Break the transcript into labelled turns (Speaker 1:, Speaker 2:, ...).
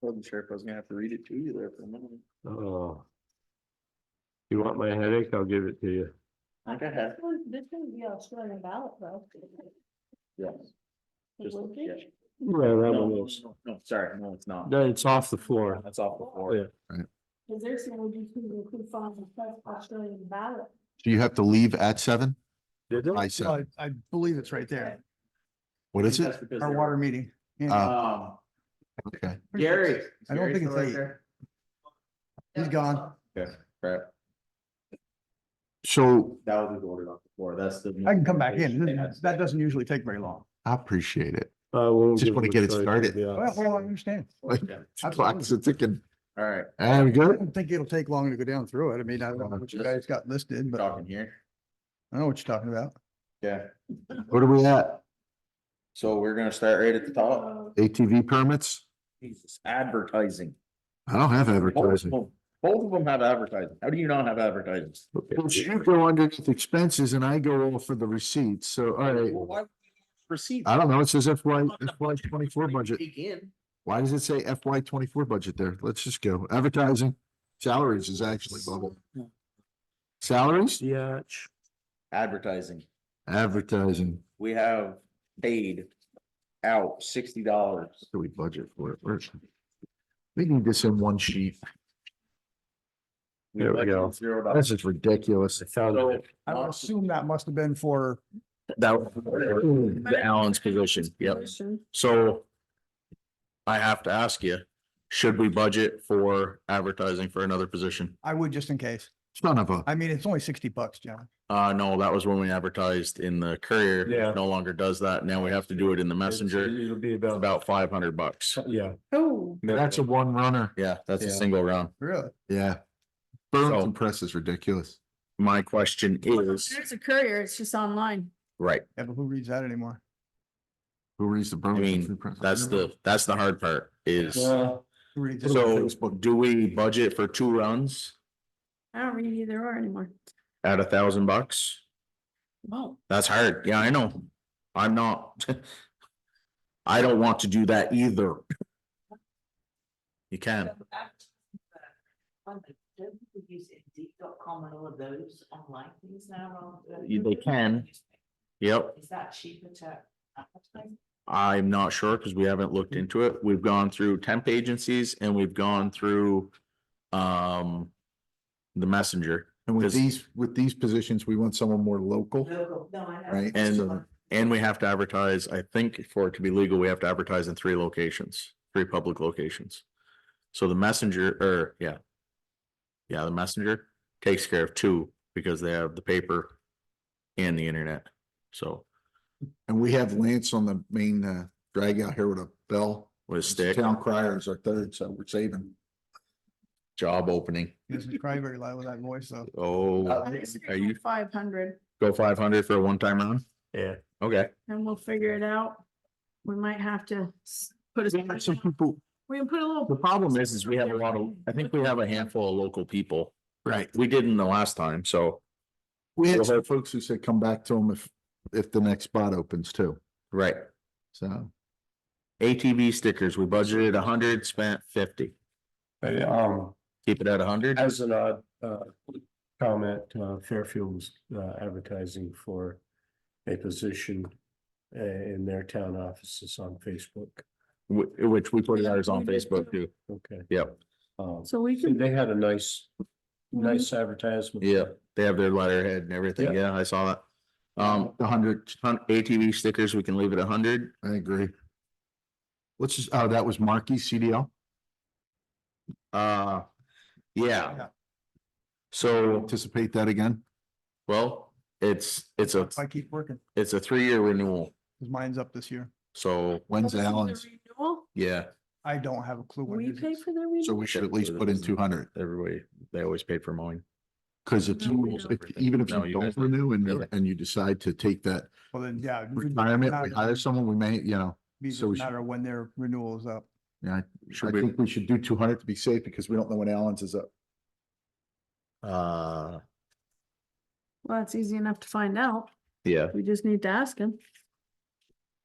Speaker 1: Wasn't sure if I was gonna have to read it to you there for a minute.
Speaker 2: Oh. You want my headache? I'll give it to you.
Speaker 1: Like I have.
Speaker 3: This would be Australian ballot though.
Speaker 1: Yes.
Speaker 3: It
Speaker 1: Just-
Speaker 3: would
Speaker 1: yeah.
Speaker 3: be.
Speaker 2: Yeah, that
Speaker 1: No,
Speaker 2: one
Speaker 1: no,
Speaker 2: was.
Speaker 1: no, no, sorry, no, it's not.
Speaker 2: No, it's off the floor.
Speaker 1: That's off the floor.
Speaker 2: Yeah.
Speaker 3: Cause there's some would include include funds plus Australian ballot.
Speaker 4: Do you have to leave at seven?
Speaker 2: Did it?
Speaker 4: I
Speaker 5: So
Speaker 4: said,
Speaker 5: Oh, I, I believe it's right there,
Speaker 4: what is it?
Speaker 1: That's because
Speaker 5: our
Speaker 1: they're-
Speaker 5: water meeting. Yeah.
Speaker 4: Uh,
Speaker 1: Um,
Speaker 4: Okay,
Speaker 5: Pretty sure
Speaker 1: Gary.
Speaker 5: it's- I don't think it's eight. He's gone.
Speaker 1: Right,
Speaker 4: so
Speaker 1: that was ordered off the floor, that's the.
Speaker 5: I can come back in.
Speaker 1: They had-
Speaker 5: This- That doesn't usually take very long.
Speaker 4: I appreciate it.
Speaker 2: I won't Uh,
Speaker 4: Just
Speaker 2: give
Speaker 4: wanna
Speaker 2: a
Speaker 4: get it
Speaker 2: shite,
Speaker 4: started.
Speaker 2: yeah.
Speaker 5: Well, well, I understand.
Speaker 1: Yeah.
Speaker 4: Clocks are ticking.
Speaker 1: All right,
Speaker 4: And we
Speaker 5: I
Speaker 4: good?
Speaker 5: don't think it'll take long to go down through it. I mean, I don't know what you guys got listed, but I
Speaker 1: talking here,
Speaker 5: know what you're talking about.
Speaker 1: yeah,
Speaker 4: What are we at?
Speaker 1: so we're gonna start right at the top.
Speaker 3: Uh,
Speaker 4: ATV permits?
Speaker 1: Jesus, advertising.
Speaker 4: I don't have
Speaker 1: Both of
Speaker 4: advertising.
Speaker 1: them- both of them have advertising, how do you not have advertising?
Speaker 4: But you go underneath expenses and I go all for the receipts. So, all right.
Speaker 1: Well, why would you Proceed.
Speaker 4: I don't know. It says FY, FY twenty-four budget.
Speaker 1: Begin.
Speaker 4: Why does it say FY twenty-four budget there? Let's just go. Advertising, salaries is actually bubble. Salaries,
Speaker 2: Yeah.
Speaker 1: Advertising,
Speaker 4: advertising,
Speaker 1: we have paid out sixty dollars.
Speaker 4: do we budget for it? Where- We need this in one sheet.
Speaker 2: There we go.
Speaker 1: Zero
Speaker 4: This
Speaker 1: dollars.
Speaker 4: is ridiculous.
Speaker 2: I found
Speaker 1: So,
Speaker 2: it.
Speaker 5: I would assume that must have been for,
Speaker 4: That was the Allen's position, yep. So I have to ask you, should we budget for advertising for another position?
Speaker 5: I would just in case.
Speaker 4: Son of a.
Speaker 5: I mean, it's only sixty bucks, John.
Speaker 6: Uh, no, that was when we advertised in the courier. It
Speaker 2: Yeah.
Speaker 6: No longer does that. Now we have to do it in the messenger.
Speaker 2: It'll be
Speaker 6: It's
Speaker 2: about,
Speaker 6: About five hundred bucks.
Speaker 2: yeah.
Speaker 3: Oh,
Speaker 4: That's a one runner.
Speaker 6: Yeah, that's a
Speaker 2: Yeah.
Speaker 6: single round.
Speaker 5: Really?
Speaker 4: Yeah. Burlington Press is ridiculous.
Speaker 6: My question is,
Speaker 3: there's a courier, it's just online.
Speaker 6: right,
Speaker 5: Yeah, but who reads that anymore?
Speaker 4: Who reads the
Speaker 6: mean,
Speaker 4: Burlington Free Press?
Speaker 6: that's the, that's the hard part is,
Speaker 2: Well,
Speaker 5: Who reads it?
Speaker 6: so do we budget for two rounds
Speaker 3: I don't read either or anymore.
Speaker 6: at a thousand bucks?
Speaker 3: Wow.
Speaker 6: That's hard. Yeah, I know. I'm not. I don't want to do that either. You can.
Speaker 7: um, Don't people use indeed.com and all of those online things now? rather
Speaker 6: You-
Speaker 7: than-
Speaker 6: They can. Yep.
Speaker 7: Is that cheaper to advertise?
Speaker 6: I'm not sure because we haven't looked into it. We've gone through temp agencies and we've gone through um the messenger
Speaker 4: And with
Speaker 6: Does-
Speaker 4: these, with these positions, we want someone more local,
Speaker 7: Local, no, I know.
Speaker 4: right?
Speaker 6: And-
Speaker 4: So-
Speaker 6: and we have to advertise, I think for it to be legal, we have to advertise in three locations, three public locations. So the messenger or yeah. Yeah, the messenger takes care of two because they have the paper and the internet. So
Speaker 4: And we have Lance on the main uh drag out here with a bell.
Speaker 6: with stick,
Speaker 4: Town crier is our third, so we're saving.
Speaker 6: job opening.
Speaker 5: This is probably very loud with that voice, though.
Speaker 6: Oh, are you
Speaker 3: Five hundred
Speaker 6: go five hundred for a one time round?
Speaker 2: yeah.
Speaker 6: Okay.
Speaker 3: and we'll figure it out. We might have to s- put a.
Speaker 6: Some people,
Speaker 3: We can put a
Speaker 6: The
Speaker 3: little.
Speaker 6: problem is, is we have a lot of, I think we have a handful of local people.
Speaker 4: Right.
Speaker 6: We didn't the last time, so,
Speaker 4: We had
Speaker 6: Well,
Speaker 4: some folks who said come back to them if, if the next spot opens too.
Speaker 6: right.
Speaker 4: So
Speaker 6: ATV stickers, we budgeted a hundred, spent fifty.
Speaker 2: Hey, um,
Speaker 6: Keep it at a hundred.
Speaker 2: as an odd uh comment, uh Fairfield was uh advertising for a position uh in their town offices on Facebook.
Speaker 6: Which we put ours on Facebook too.
Speaker 2: Okay.
Speaker 6: Yep.
Speaker 2: Um,
Speaker 3: So we can.
Speaker 2: they had a nice,
Speaker 3: Mm-hmm.
Speaker 2: nice advertisement.
Speaker 6: Yeah, they have their letterhead and everything. Yeah, I saw that. Um,
Speaker 4: the hundred,
Speaker 6: hun- ATV stickers, we can leave it a hundred.
Speaker 4: I agree. Let's just, oh, that was Markey CDL.
Speaker 6: Uh, yeah. So,
Speaker 4: Anticipate that again.
Speaker 6: well, it's, it's a,
Speaker 5: If I keep working,
Speaker 6: it's a three-year renewal.
Speaker 5: 'cause mine's up this year.
Speaker 6: So,
Speaker 4: When's
Speaker 3: The
Speaker 4: Allen's?
Speaker 3: renewal,
Speaker 6: yeah.
Speaker 5: I don't have a clue what
Speaker 3: We
Speaker 5: it
Speaker 3: pay
Speaker 5: is.
Speaker 3: for the renewal.
Speaker 4: So we should at least put in two hundred,
Speaker 6: everybody, they always paid for mowing.
Speaker 4: because if
Speaker 3: No, we
Speaker 4: you,
Speaker 3: don't.
Speaker 4: if- even if
Speaker 6: No,
Speaker 4: you
Speaker 6: you guys
Speaker 4: don't
Speaker 6: don't.
Speaker 4: renew and, you-
Speaker 6: Really?
Speaker 4: and you decide to take that
Speaker 5: Well, then, yeah. it'd
Speaker 4: retirement, we hire someone, we may, you know.
Speaker 5: Be just
Speaker 4: so
Speaker 5: a
Speaker 4: we should-
Speaker 5: matter of when their renewal is up.
Speaker 4: Yeah, I- I
Speaker 6: Should we,
Speaker 4: think we should do two hundred to be safe because we don't know when Allen's is up.
Speaker 6: uh,
Speaker 3: Well, it's easy enough to find out.
Speaker 6: yeah,
Speaker 3: We just need to ask him.